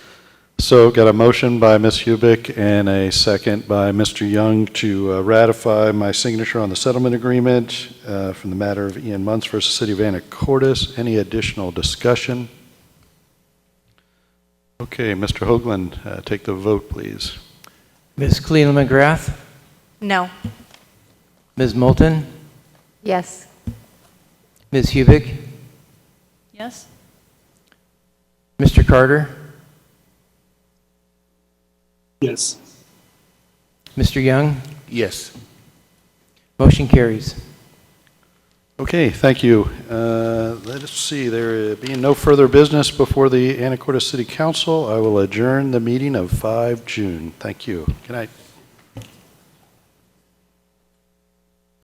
So got a motion by Ms. Hubick and a second by Mr. Young to uh, ratify my signature on the settlement agreement uh, from the matter of Ian Munts versus City of Anacortes. Any additional discussion? Okay, Mr. Hoagland, uh, take the vote, please. Ms. Cleland McGrath, No. Ms. Moulton, Yes. Ms. Hubick, Yes? Mr. Carter, Yes. Mr. Young. Yes. Motion carries. Okay, thank you. Uh, Let's see, there being no further business before the Anacortes City Council, I will adjourn the meeting of 5 June. Thank you. Good night.